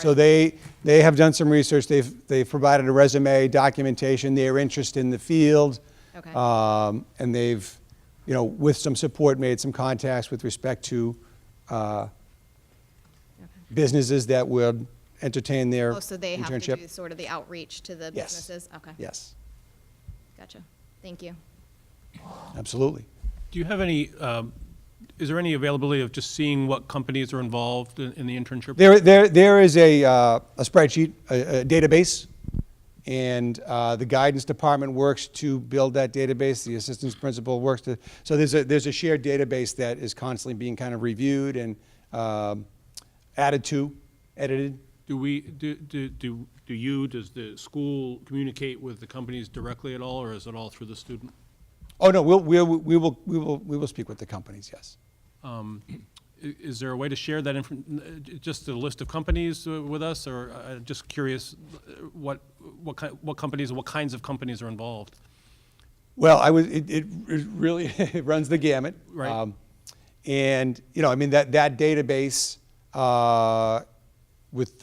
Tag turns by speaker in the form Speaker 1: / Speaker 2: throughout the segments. Speaker 1: So they, they have done some research, they've, they've provided a resume, documentation, their interest in the field.
Speaker 2: Okay.
Speaker 1: Um, And they've, you know, with some support, made some contacts with respect to uh, businesses that would entertain their internship.
Speaker 2: Oh, so they have to do sort of the outreach to the
Speaker 1: Yes.
Speaker 2: businesses? Okay.
Speaker 1: Yes,
Speaker 2: Gotcha. Thank you.
Speaker 1: absolutely.
Speaker 3: Do you have any, um, is there any availability of just seeing what companies are involved in in the internship?
Speaker 1: There, there, there is a, uh, a spreadsheet, a, a database, and uh, the guidance department works to build that database. The assistance principal works to, so there's a, there's a shared database that is constantly being kind of reviewed and um, added to, edited.
Speaker 3: Do we, do, do, do do you, does the school communicate with the companies directly at all, or is it all through the student?
Speaker 1: Oh no, we'll, we'll, we will, we will, we will speak with the companies. Yes.
Speaker 3: Um, i- Is there a way to share that, infor- n- uh, just a list of companies uh, with us, or uh, I'm just curious uh, what, what kind, what companies, and what kinds of companies are involved?
Speaker 1: Well, I was, it, it it really it runs the gamut. Um,
Speaker 3: Right.
Speaker 1: and, you know, I mean, that, that database uh, with,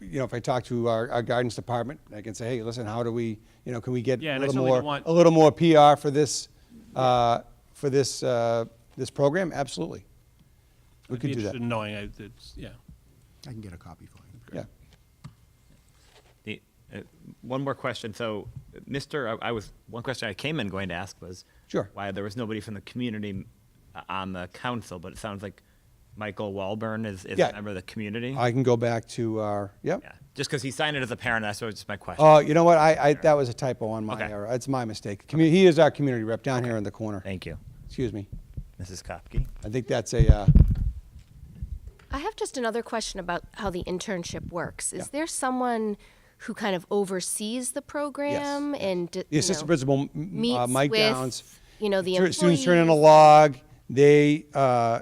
Speaker 1: you know, if I talk to our, our guidance department, I can say, hey, listen, how do we, you know, can we get
Speaker 3: Yeah,
Speaker 1: a
Speaker 3: and I
Speaker 1: little
Speaker 3: certainly don't
Speaker 1: more,
Speaker 3: want-
Speaker 1: a little more PR for this, uh, for this, uh, this program? Absolutely. We
Speaker 3: I'd
Speaker 1: could
Speaker 3: be
Speaker 1: do that.
Speaker 3: interested in knowing, I, it's, yeah.
Speaker 4: I can get a copy for you.
Speaker 1: Yeah.
Speaker 5: The, uh, one more question. So, uh, Mr. I, I was one question I came in going to ask was
Speaker 1: Sure.
Speaker 5: why there was nobody from the community uh, on the council, but it sounds like Michael Walburn is, is
Speaker 1: Yeah.
Speaker 5: a member of the community.
Speaker 1: I can go back to our, yep.
Speaker 5: yeah, just because he signed it as a parent, that's what was my question.
Speaker 1: Oh, you know what? I, I, that was a typo on my
Speaker 5: Okay.
Speaker 1: error. It's my mistake. Commu- He is our community rep down here in the corner.
Speaker 5: Thank you,
Speaker 1: Excuse me.
Speaker 5: Mrs. Kopke.
Speaker 1: I think that's a, uh,
Speaker 6: I have just another question about how the internship works. Is
Speaker 1: Yeah.
Speaker 6: there someone who kind of oversees the program and d-
Speaker 1: the
Speaker 6: you
Speaker 1: assistant
Speaker 6: know,
Speaker 1: principal, m-
Speaker 6: meets
Speaker 1: uh, Mike
Speaker 6: with,
Speaker 1: Downs.
Speaker 6: You know, the
Speaker 1: Tur- Students turn in a
Speaker 6: employees?
Speaker 1: log, they, uh,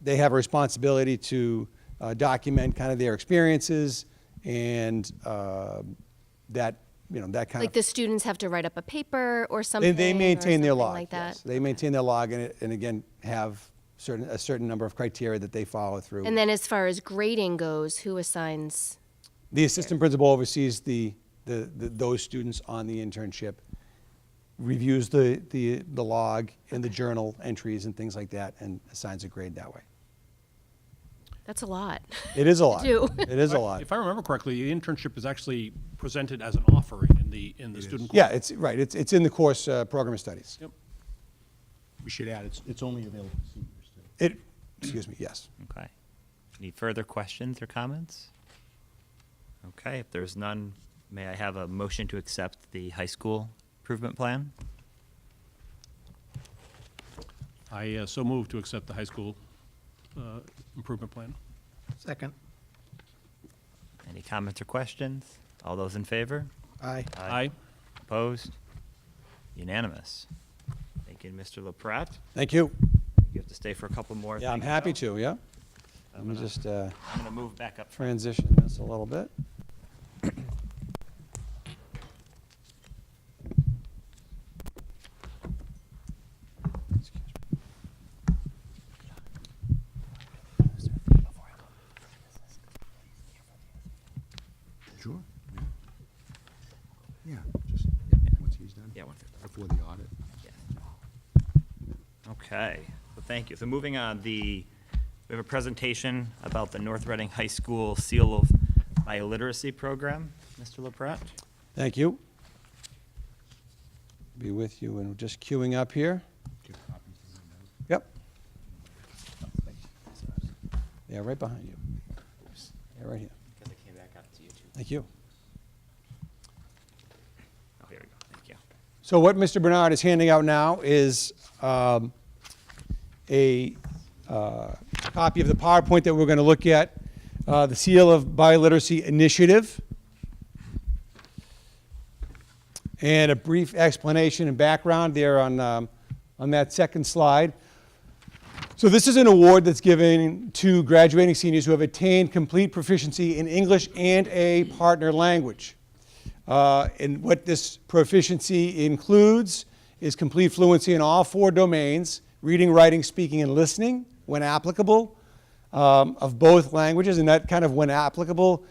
Speaker 1: they have a responsibility to uh, document kind of their experiences and uh, that, you know, that kind of.
Speaker 6: Like the students have to write up a paper or something.
Speaker 1: They, they
Speaker 6: or
Speaker 1: maintain their
Speaker 6: something
Speaker 1: log,
Speaker 6: Like that.
Speaker 1: yes. They maintain their log and, it- and again, have certain, a certain number of criteria that they follow through.
Speaker 6: And then as far as grading goes, who assigns?
Speaker 1: The assistant principal oversees the, the, the, those students on the internship, reviews the, the, the log and the journal entries and things like that, and assigns a grade that way.
Speaker 6: That's a lot.
Speaker 1: It is a lot.
Speaker 6: do.
Speaker 1: It is a lot.
Speaker 3: If I remember correctly, the internship is actually presented as an offering in the, in the student.
Speaker 1: Yeah, it's, right, it's, it's in the course, uh, program of studies.
Speaker 3: Yep.
Speaker 4: We should add, it's, it's only available to seniors too.
Speaker 1: It, excuse me, yes.
Speaker 5: Okay. Any further questions or comments? Okay. If there's none, may I have a motion to accept the high school improvement plan?
Speaker 3: I uh, so move to accept the high school uh, improvement plan.
Speaker 4: Second.
Speaker 5: Any comments or questions? All those in favor?
Speaker 4: Aye.
Speaker 3: Aye.
Speaker 5: Opposed? Unanimous. Thank you, Mr. LaPrat.
Speaker 1: Thank you.
Speaker 5: You have to stay for a couple more.
Speaker 1: Yeah, I'm
Speaker 5: things,
Speaker 1: happy
Speaker 5: though.
Speaker 1: to, yeah. Let me just uh,
Speaker 5: I'm going to move back up front.
Speaker 1: transition this a little bit.
Speaker 4: Sure. Yeah, just, once he's done.
Speaker 5: Yeah, one second.
Speaker 4: Before the audit.
Speaker 5: Okay, well, thank you. So moving on, the, we have a presentation about the North Reading High School Seal of Bioliteracy Program. Mr. LaPrat?
Speaker 1: Thank you. Be with you, and we're just queuing up here. Yep. Yeah, right behind you. Yeah, right here.
Speaker 5: Because I came back up to you too.
Speaker 1: Thank you.
Speaker 5: Oh, here we go, thank you.
Speaker 1: So what Mr. Bernard is handing out now is um, a uh, copy of the PowerPoint that we're going to look at, uh, the Seal of Bioliteracy Initiative, and a brief explanation and background there on, um, on that second slide. So this is an award that's given to graduating seniors who have attained complete proficiency in English and a partner language. Uh, and what this proficiency includes is complete fluency in all four domains reading, writing, speaking, and listening when applicable, um, of both languages, and that kind of when applicable